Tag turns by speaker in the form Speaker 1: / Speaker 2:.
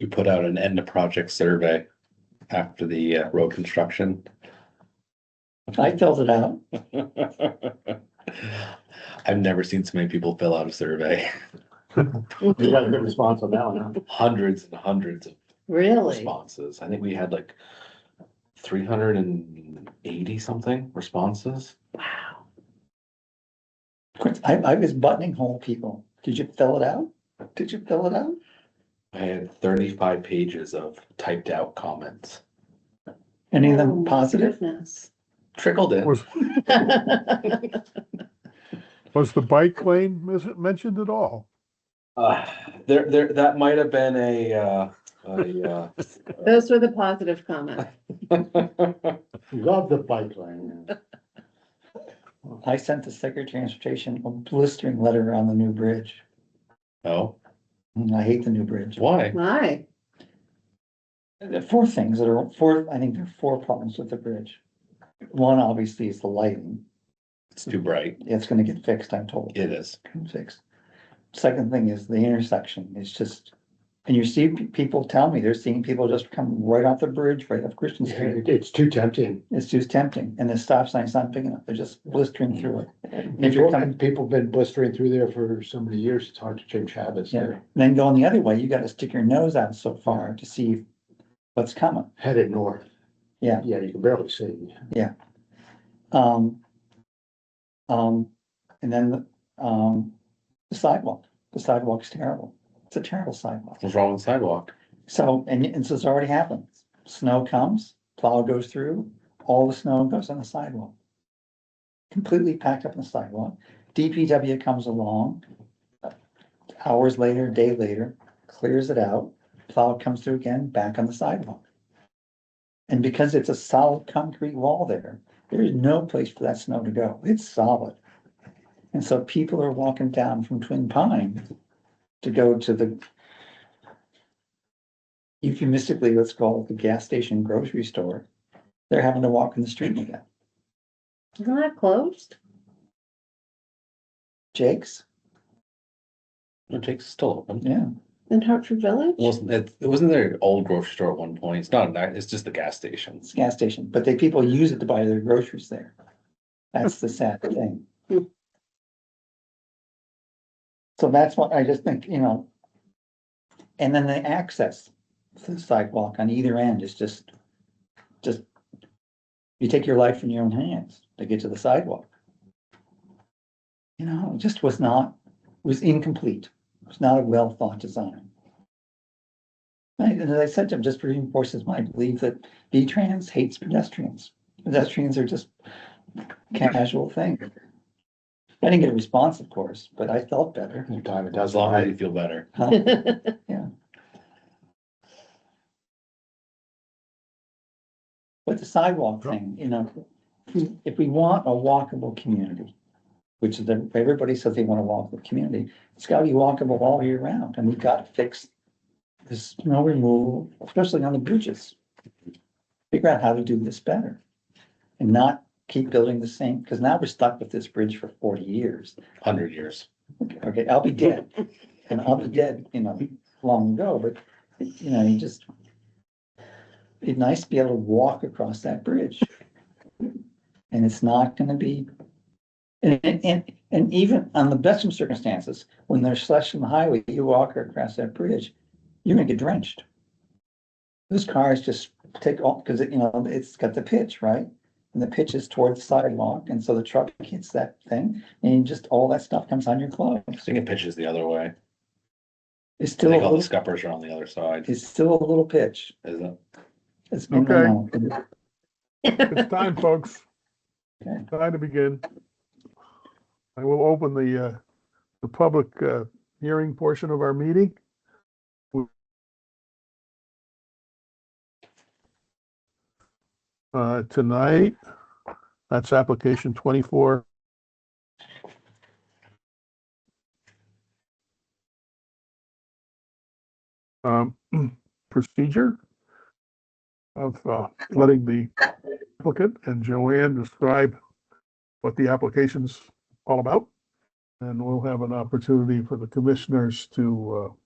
Speaker 1: we put out an end of project survey after the uh, road construction.
Speaker 2: I filled it out.
Speaker 1: I've never seen so many people fill out a survey,
Speaker 2: You got a good response on that one, huh?
Speaker 1: hundreds and hundreds of
Speaker 3: Really?
Speaker 1: responses. I think we had like three hundred and eighty something responses.
Speaker 2: I, I was buttoning hole people. Did you fill it out? Did you fill it out?
Speaker 1: I had thirty-five pages of typed out comments
Speaker 2: Any of
Speaker 3: Oh,
Speaker 2: them
Speaker 3: my
Speaker 2: positive?
Speaker 3: goodness.
Speaker 1: trickled in.
Speaker 4: Was, was the bike lane mis- mentioned at all?
Speaker 1: Uh, there, there, that might have been a, uh, a,
Speaker 3: Those were the positive comments.
Speaker 1: uh,
Speaker 5: Love the bike lane.
Speaker 2: I sent the Secretary of Transportation a blistering letter around the new bridge.
Speaker 1: oh,
Speaker 2: Mm, I hate the new bridge.
Speaker 1: why?
Speaker 3: Why?
Speaker 2: There are four things that are, four, I think there are four problems with the bridge. One, obviously, is the lighting.
Speaker 1: It's too bright.
Speaker 2: It's gonna get fixed, I'm told.
Speaker 1: It is.
Speaker 2: fixed. Second thing is the intersection, it's just, and you see pe- people tell me, they're seeing people just come right off the bridge, right off Christian Street.
Speaker 5: It- It's too tempting.
Speaker 2: It's just tempting, and the stop sign's not big enough, they're just blistering through it. If you're
Speaker 5: People-
Speaker 2: coming-
Speaker 5: and People have been blistering through there for so many years, it's hard to change habits
Speaker 2: Yeah,
Speaker 5: there,
Speaker 2: then going the other way, you gotta stick your nose out so far to see what's coming.
Speaker 5: headed north.
Speaker 2: Yeah.
Speaker 5: Yeah, you can barely see.
Speaker 2: Um. Um, and then, um, the sidewalk, the sidewalk's terrible, it's a terrible sidewalk.
Speaker 1: What's wrong with the sidewalk?
Speaker 2: So, and, and so it's already happened. Snow comes, plow goes through, all the snow goes on the sidewalk. Completely packed up on the sidewalk. DPW comes along. Hours later, day later, clears it out, plow comes through again, back on the sidewalk. And because it's a solid concrete wall there, there is no place for that snow to go. It's solid. And so people are walking down from Twin Pines to go to the euphemistically, let's call it the gas station grocery store, they're having to walk in the street again.
Speaker 3: Isn't that closed?
Speaker 2: Jake's,
Speaker 1: It takes still open.
Speaker 2: yeah,
Speaker 3: In Hartford Village?
Speaker 1: Wasn't it, it wasn't there an old grocery store at one point? It's not, a ni- it's just the gas
Speaker 2: it's
Speaker 1: stations.
Speaker 2: a gas station, but they, people use it to buy their groceries there. That's the sad thing. So that's what I just think, you know. And then the access to the sidewalk on either end is just, just, you take your life in your own hands to get to the sidewalk. You know, it just was not, was incomplete. It was not a well thought design. And as I said to him, just reinforces my belief that V-Trans hates pedestrians. Pedestrians are just casual thing. I didn't get a response, of course, but I felt better.
Speaker 5: Any Time it
Speaker 1: As
Speaker 5: does
Speaker 1: long as
Speaker 5: lie.
Speaker 1: you feel better.
Speaker 2: huh? But the sidewalk thing, you know, if we- if we want a walkable community, which is, the- everybody says they want a walkable community, it's gotta be walkable all year round, and we've got to fix the snow removal, especially on the bridges. Figure out how to do this better and not keep building the same, because now we're stuck with this bridge for forty years.
Speaker 1: Hundred years.
Speaker 2: Okay, I'll be dead, and I'll be dead, you know, long ago, but, you know, you just. It'd be nice to be able to walk across that bridge. And it's not gonna be. And, and- and, and even on the best of circumstances, when there's slush on the highway, you walk across that bridge, you're gonna get drenched. Those cars just take off, cause it, you know, it's got the pitch, right? And the pitch is toward the sidewalk, and so the truck hits that thing, and just all that stuff comes on your clothes.
Speaker 1: I think it pitches the other way.
Speaker 2: It's
Speaker 1: I
Speaker 2: still, a
Speaker 1: think all the
Speaker 2: little-
Speaker 1: scuppers are on the other side,
Speaker 2: it's still a little pitch.
Speaker 1: isn't it?
Speaker 2: It's been going on.
Speaker 4: It's time, folks.
Speaker 2: Okay.
Speaker 4: Time to begin. I will open the, uh, the public, uh, hearing portion of our meeting. Uh, tonight, that's application twenty-four. Um, procedure of, uh, letting the applicant and Joanne describe what the application's all about. And we'll have an opportunity for the commissioners to uh,